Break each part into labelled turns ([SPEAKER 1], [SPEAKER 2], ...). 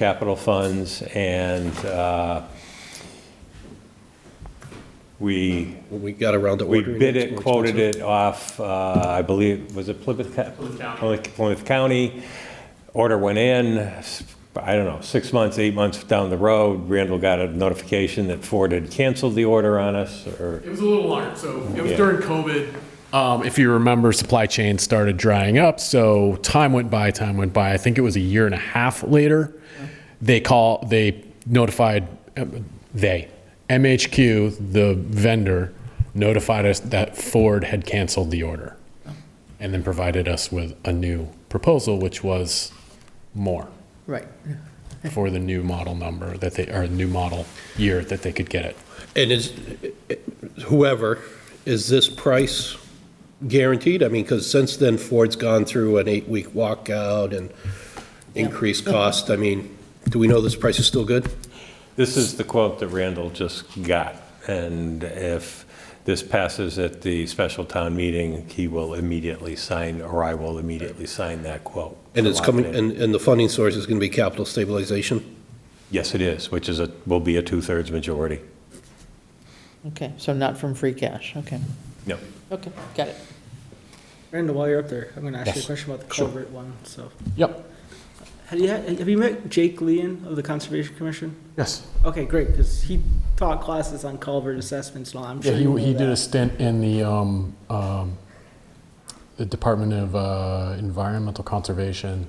[SPEAKER 1] capital funds, and uh, we
[SPEAKER 2] When we got around to
[SPEAKER 1] we
[SPEAKER 2] ordering.
[SPEAKER 1] bid
[SPEAKER 2] it's
[SPEAKER 1] it,
[SPEAKER 2] more
[SPEAKER 1] quoted
[SPEAKER 2] expensive.
[SPEAKER 1] it off, uh, I believe, was it Plymouth? Ca-
[SPEAKER 3] Plymouth County.
[SPEAKER 1] Plymouth- Plymouth County. Order went in, s- I don't know, six months, eight months down the road, Randall got a notification that Ford had canceled the order on us, or,
[SPEAKER 3] It was a little longer, so it was
[SPEAKER 1] Yeah.
[SPEAKER 3] during COVID.
[SPEAKER 4] Um, if you remember, supply chain started drying up, so time went by, time went by. I think it was a year and a half later. They call, they notified, um, they, MHQ, the vendor, notified us that Ford had canceled the order, and then provided us with a new proposal, which was more
[SPEAKER 5] Right.
[SPEAKER 4] for the new model number that they, or new model year that they could get it.
[SPEAKER 2] And is, whoever, is this price guaranteed? I mean, because since then Ford's gone through an eight-week walkout and increased cost. I mean, do we know this price is still good?
[SPEAKER 1] this is the quote that Randall just got, and if this passes at the special town meeting, he will immediately sign, or I will immediately sign that quote.
[SPEAKER 2] And it's
[SPEAKER 1] to lock
[SPEAKER 2] coming,
[SPEAKER 1] it in.
[SPEAKER 2] and, and the funding source is going to be capital stabilization?
[SPEAKER 1] Yes, it is, which is a, will be a two-thirds majority.
[SPEAKER 5] Okay, so not from free cash, okay.
[SPEAKER 1] No.
[SPEAKER 5] Okay, got it.
[SPEAKER 6] Randall, while you're up there, I'm gonna ask you a
[SPEAKER 4] Yes.
[SPEAKER 6] question about the
[SPEAKER 4] Sure.
[SPEAKER 6] culvert one, so.
[SPEAKER 4] Yep.
[SPEAKER 6] Have you, have you met Jake Leon of the Conservation Commission?
[SPEAKER 4] Yes.
[SPEAKER 6] Okay, great, because he taught classes on culvert assessments, and all. I'm
[SPEAKER 4] Yeah,
[SPEAKER 6] sure you know
[SPEAKER 4] he, he did a
[SPEAKER 6] that.
[SPEAKER 4] stint in the, um, um, the Department of uh, Environmental Conservation,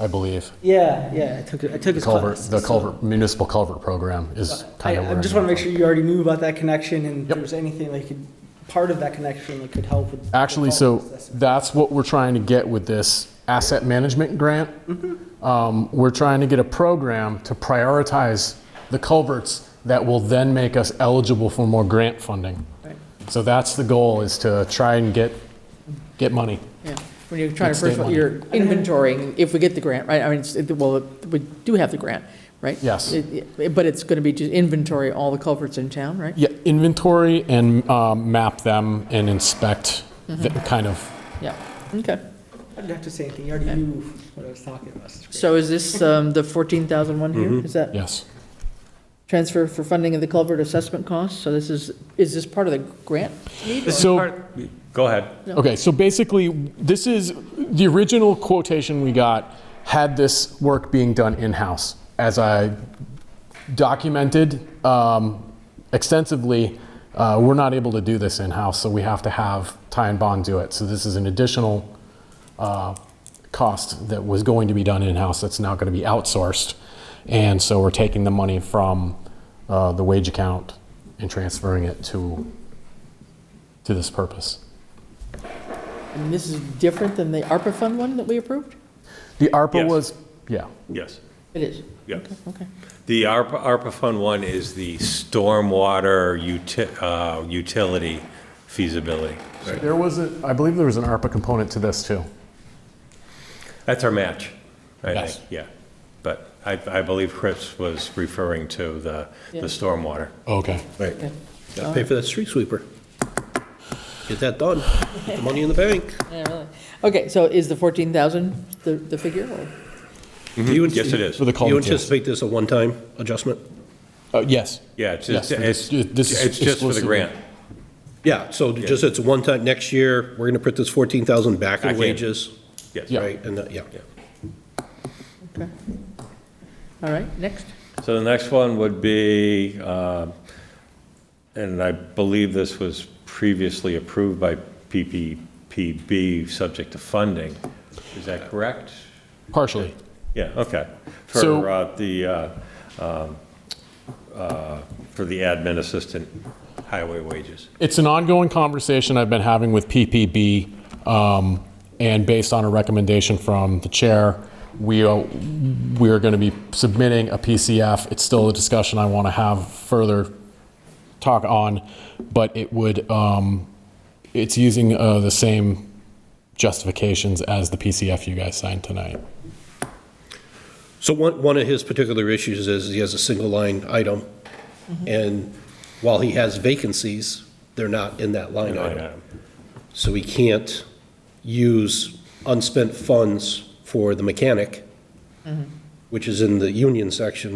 [SPEAKER 4] I believe.
[SPEAKER 6] Yeah, yeah, I took, I took
[SPEAKER 4] The
[SPEAKER 6] his
[SPEAKER 4] culvert,
[SPEAKER 6] class.
[SPEAKER 4] the
[SPEAKER 6] so-
[SPEAKER 4] culvert, municipal culvert program is
[SPEAKER 6] I,
[SPEAKER 4] kind of.
[SPEAKER 6] I just wanna make sure you already knew about that connection, and
[SPEAKER 4] Yep.
[SPEAKER 6] if there was anything that could, part of that connection that could help with. the
[SPEAKER 4] Actually, so
[SPEAKER 6] culvert assessment.
[SPEAKER 4] that's what we're trying to get with this asset management grant.
[SPEAKER 6] Mm-hmm.
[SPEAKER 4] Um, we're trying to get a program to prioritize the culverts that will then make us eligible for more grant funding.
[SPEAKER 6] Right.
[SPEAKER 4] So that's the goal, is to try and get, get money.
[SPEAKER 5] Yeah, when you're trying to,
[SPEAKER 4] Next day
[SPEAKER 5] first of all,
[SPEAKER 4] money.
[SPEAKER 5] you're inventorying, if we get the grant, right, I mean, it's- it- well, we do have the grant, right?
[SPEAKER 4] Yes.
[SPEAKER 5] It- it- But it's going to be just inventory all the culverts in town, right?
[SPEAKER 4] Yeah, inventory and um, map them and inspect, the kind of,
[SPEAKER 5] Yeah, okay.
[SPEAKER 6] I didn't have to say anything, you already knew what I was talking about. it's great.
[SPEAKER 5] So is this um, the 14,001
[SPEAKER 4] Mm-hmm.
[SPEAKER 5] here? Is that
[SPEAKER 4] yes.
[SPEAKER 5] transfer for funding of the culvert assessment costs? So this is, is this part of the grant?
[SPEAKER 4] So,
[SPEAKER 1] Go ahead.
[SPEAKER 4] okay, so basically, this is, the original quotation we got had this work being done in-house. As I documented um, extensively, uh, we're not able to do this in-house, so we have to have Ty and Bond do it. So this is an additional uh, cost that was going to be done in-house that's now going to be outsourced. And so we're taking the money from uh, the wage account and transferring it to, to this purpose.
[SPEAKER 5] And this is different than the ARPA fund one that we approved?
[SPEAKER 4] The ARPA
[SPEAKER 1] Yes.
[SPEAKER 4] was, yeah,
[SPEAKER 1] Yes,
[SPEAKER 5] It is,
[SPEAKER 1] yeah.
[SPEAKER 5] okay.
[SPEAKER 1] The ARPA, ARPA Fund One is the stormwater uti- uh, utility feasibility.
[SPEAKER 4] there was a, I believe there was an ARPA component to this too.
[SPEAKER 1] That's our match, I
[SPEAKER 4] Yes.
[SPEAKER 1] think, yeah. But I, I believe Chris was referring to the, the
[SPEAKER 5] Yeah.
[SPEAKER 1] stormwater.
[SPEAKER 4] Oh, Okay.
[SPEAKER 2] Right.
[SPEAKER 5] Okay.
[SPEAKER 2] Got to pay for that street sweeper. Get that done. Get the money in the bank.
[SPEAKER 5] Yeah, really. Okay, so is the 14,000 the, the figure? or-
[SPEAKER 2] Do you-
[SPEAKER 1] Yes, it is.
[SPEAKER 4] For the
[SPEAKER 2] Do you
[SPEAKER 4] culvert, yes.
[SPEAKER 2] anticipate this a one-time adjustment?
[SPEAKER 4] Uh, Yes.
[SPEAKER 1] Yeah, it's,
[SPEAKER 4] Yes,
[SPEAKER 1] just- it's,
[SPEAKER 4] this is
[SPEAKER 1] it's just for the
[SPEAKER 4] explicitly-
[SPEAKER 1] grant.
[SPEAKER 2] Yeah, so just it's one time, next year, we're going to put this 14,000 back
[SPEAKER 1] Back
[SPEAKER 2] in
[SPEAKER 1] in.
[SPEAKER 2] wages,
[SPEAKER 1] Yes.
[SPEAKER 4] Yeah.
[SPEAKER 2] right? And, that- yeah.
[SPEAKER 5] Okay. All right, next.
[SPEAKER 1] So the next one would be, uh, and I believe this was previously approved by PPPB, subject to funding. Is that correct?
[SPEAKER 4] Partially.
[SPEAKER 1] Yeah, okay.
[SPEAKER 4] So-
[SPEAKER 1] For uh, the, uh, um, uh, for the admin assistant highway wages.
[SPEAKER 4] It's an ongoing conversation I've been having with PPB, um, and based on a recommendation from the chair, we are, we are going to be submitting a PCF. It's still a discussion I want to have further talk on, but it would, um, it's using uh, the same justifications as the PCF you guys signed tonight.
[SPEAKER 2] So one, one of his particular issues is he has a single line item, and while he has vacancies, they're not in that line item. So he can't use unspent funds for the mechanic, which is in the union section